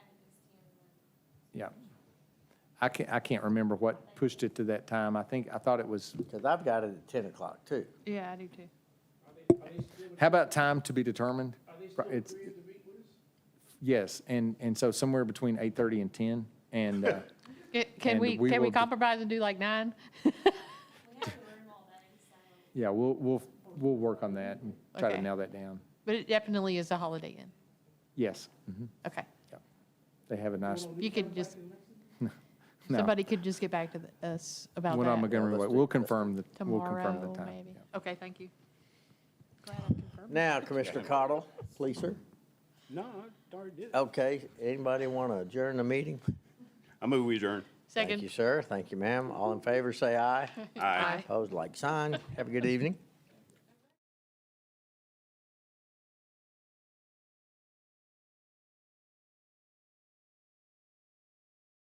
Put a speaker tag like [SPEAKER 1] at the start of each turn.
[SPEAKER 1] yeah. I can't, I can't remember what pushed it to that time. I think, I thought it was,
[SPEAKER 2] Because I've got it at 10 o'clock, too.
[SPEAKER 3] Yeah, I do too.
[SPEAKER 1] how about time to be determined? It's Yes, and, and so somewhere between 8:30 and 10, and, uh,
[SPEAKER 3] Ca-
[SPEAKER 1] And
[SPEAKER 3] Can we,
[SPEAKER 1] we
[SPEAKER 3] can we
[SPEAKER 1] will be-
[SPEAKER 3] compromise and do like nine?
[SPEAKER 4] We have to learn all that inside.
[SPEAKER 1] yeah, we'll, we'll, we'll work on that and try to
[SPEAKER 3] Okay.
[SPEAKER 1] nail that down.
[SPEAKER 3] But it definitely is a Holiday Inn.
[SPEAKER 1] Yes, mhm.
[SPEAKER 3] Okay.
[SPEAKER 1] they have a nice,
[SPEAKER 3] You could just,
[SPEAKER 1] no,
[SPEAKER 3] somebody could just get back to the- us about
[SPEAKER 1] one on
[SPEAKER 3] that
[SPEAKER 1] Montgomery Way.
[SPEAKER 2] Let's do-
[SPEAKER 1] We'll confirm the, we'll confirm
[SPEAKER 3] tomorrow,
[SPEAKER 1] the time.
[SPEAKER 3] maybe.
[SPEAKER 1] yeah.
[SPEAKER 3] Okay, thank you.
[SPEAKER 2] Now, Commissioner Cottle, please, sir.
[SPEAKER 5] No, Uh, I already did.
[SPEAKER 2] Okay, anybody want to adjourn the meeting?
[SPEAKER 5] I move we adjourn.
[SPEAKER 2] Thank you,
[SPEAKER 3] Second.
[SPEAKER 2] sir. Thank you, ma'am. All in favor, say aye.
[SPEAKER 3] Aye.
[SPEAKER 2] Opposed, like sign. Have a good evening.